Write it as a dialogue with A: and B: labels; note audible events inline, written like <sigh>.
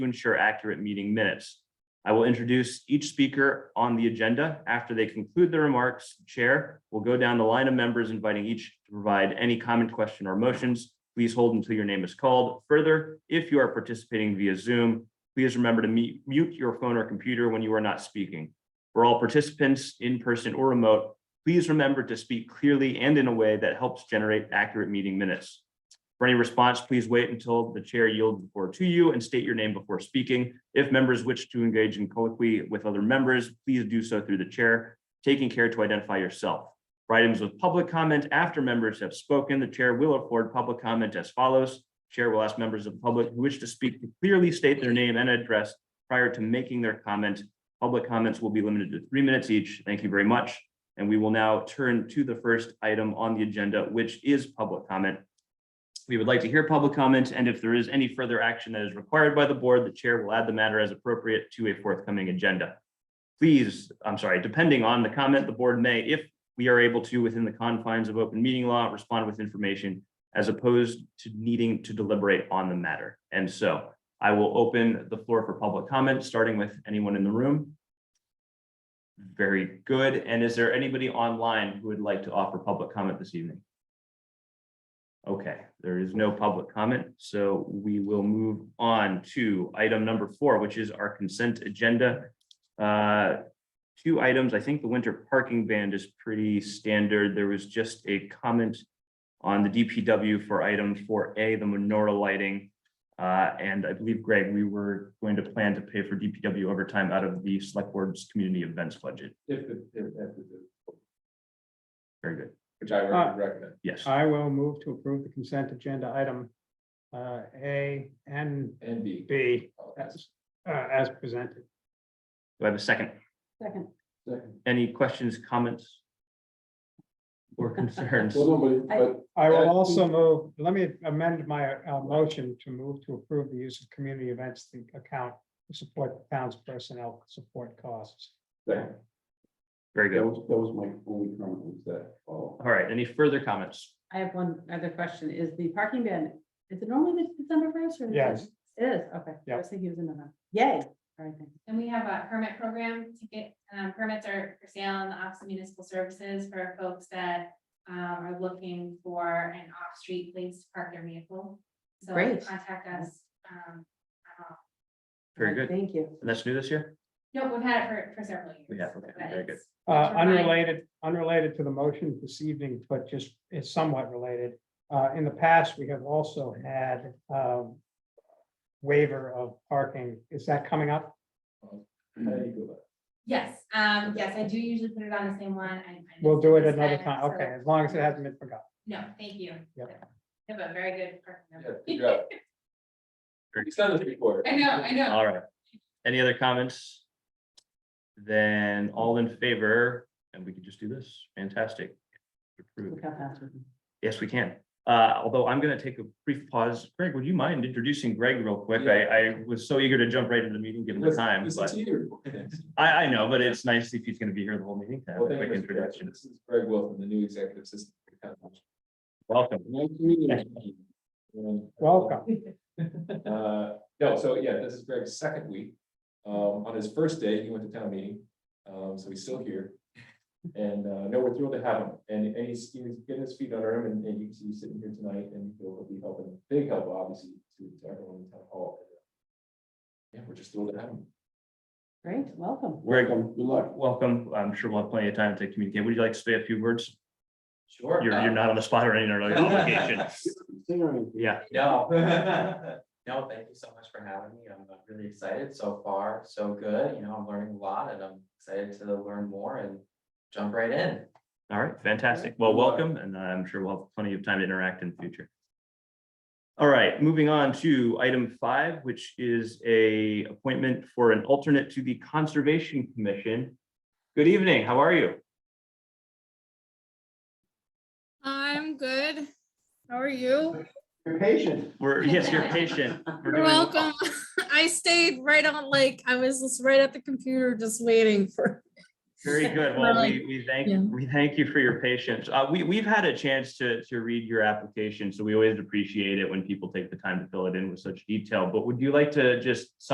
A: to ensure accurate meeting minutes. I will introduce each speaker on the agenda. After they conclude their remarks, Chair will go down the line of members inviting each to provide any comment, question, or motions. Please hold until your name is called. Further, if you are participating via Zoom, please remember to mu- mute your phone or computer when you are not speaking. For all participants, in person or remote, please remember to speak clearly and in a way that helps generate accurate meeting minutes. For any response, please wait until the chair yields the floor to you and state your name before speaking. If members wish to engage in colloquy with other members, please do so through the chair, taking care to identify yourself. For items with public comment after members have spoken, the chair will afford public comment as follows. Chair will ask members of the public who wish to speak to clearly state their name and address prior to making their comment. Public comments will be limited to three minutes each. Thank you very much. And we will now turn to the first item on the agenda, which is public comment. We would like to hear public comment, and if there is any further action that is required by the board, the chair will add the matter as appropriate to a forthcoming agenda. Please, I'm sorry, depending on the comment, the board may, if we are able to, within the confines of open meeting law, respond with information as opposed to needing to deliberate on the matter. And so I will open the floor for public comment, starting with anyone in the room. Very good. And is there anybody online who would like to offer public comment this evening? Okay, there is no public comment, so we will move on to item number four, which is our consent agenda. Uh, Two items, I think the winter parking ban is pretty standard. There was just a comment on the DPW for item four A, the menorah lighting. Uh, And I believe, Greg, we were going to plan to pay for DPW overtime out of the select board's community events budget.
B: If, it- if, if, it is,
A: Very good,
B: which I
C: Ah.
B: would recommend.
A: yes.
C: I will move to approve the consent agenda item uh, A and
B: And B.
C: B
B: Oh,
C: as, uh, as presented.
A: Do I have a second?
D: Second.
B: second.
A: Any questions, comments? Or
B: <laughs>
A: concerns?
B: Well, nobody, but
C: I will
B: Uh,
C: also move, let me amend my uh, motion to move to approve the use of community events the account to support the town's personnel support costs.
B: that
A: Very
B: that
A: good.
B: was, that was my only comment was that, oh.
A: All right, any further comments?
D: I have one other question. Is the parking ban, is it normally the December first or? is it-
C: Yes.
D: It is, okay. I
C: Yep.
D: was thinking it was in November. Yay. All right, thank you.
E: And we have a permit program to get, um, permits are for sale in the Office of Municipal Services for folks that um, are looking for an off-street place to park their vehicle. So
D: Great.
E: contact us. um, uh,
A: Very good.
D: Thank you.
A: And that's new this year?
E: No, we've had it for, for several years.
A: We have, okay,
E: but
A: very good.
E: it's-
C: Uh,
E: That's right.
C: Unrelated, unrelated to the motion this evening, but just is somewhat related. Uh, In the past, we have also had um, waiver of parking. Is that coming up?
B: How do you go
E: Yes, um, yes, I do usually put it on the same one. I- I
C: We'll do it
E: missed
C: another
E: that,
C: time,
E: so-
C: okay, as long as it hasn't been forgotten.
E: No, thank you.
C: Yep.
E: You Have a very good parking
B: about
E: number.
B: that? Yeah, figure out. <laughs> It's not a recorder.
E: <laughs> I know, I know.
A: All right. Any other comments? Then all in favor, and we could just do this. Fantastic.
D: Look
A: Approved.
D: how fast we can.
A: Yes, we can. Uh, although I'm gonna take a brief pause. Greg, would you mind introducing Greg real quick? I, I was so eager to jump right into the meeting given the
B: Listen-
A: time,
B: listen
A: but
B: to you. <laughs>
A: I, I know, but it's nice if he's gonna be here the whole meeting. to have
B: Well,
A: a
B: thank you,
A: Quick
B: Mr. Chair.
A: introduction.
B: This is Greg Wilson, the new executive assistant. to the town manager.
A: Welcome.
B: Nice to meet you. Um,
C: Welcome.
B: Uh, no, so yeah, this is Greg's second week. Um, on his first day, he went to town meeting, um, so he's still here. And, uh, no, we're thrilled to have him and, and he's, he's getting his feet under him and, and you can see he's sitting here tonight and he'll be helping, big help obviously to to everyone in town hall. Yeah, we're just thrilled to have him.
D: Great, welcome.
A: Greg,
B: Good luck.
A: welcome. I'm sure we'll have plenty of time to communicate. Would you like to say a few words?
F: Sure. uh,
A: You're, you're not on the spot or any obligation. Yeah.
F: No. No, <laughs> thank you so much for having me. I'm uh, really excited so far, so good. You know, I'm learning a lot and I'm excited to learn more and jump right in.
A: All right, fantastic. Well,
B: Good luck.
A: welcome, and I'm sure we'll have plenty of time to interact in the future. All right, moving on to item five, which is a appointment for an alternate to the Conservation Commission. Good evening, how are you?
G: I'm good. How are you?
C: You're patient.
A: We're, yes, you're patient. We're
G: You're
A: doing well.
G: welcome. <laughs> I stayed right on, like, I was just right at the computer just waiting for.
A: Very good. Well, we, we
G: Yeah.
A: thank, we thank you for your patience. Uh, we, we've had a chance to, to read your application, so we always appreciate it when people take the time to fill it in with such detail. But would you like to just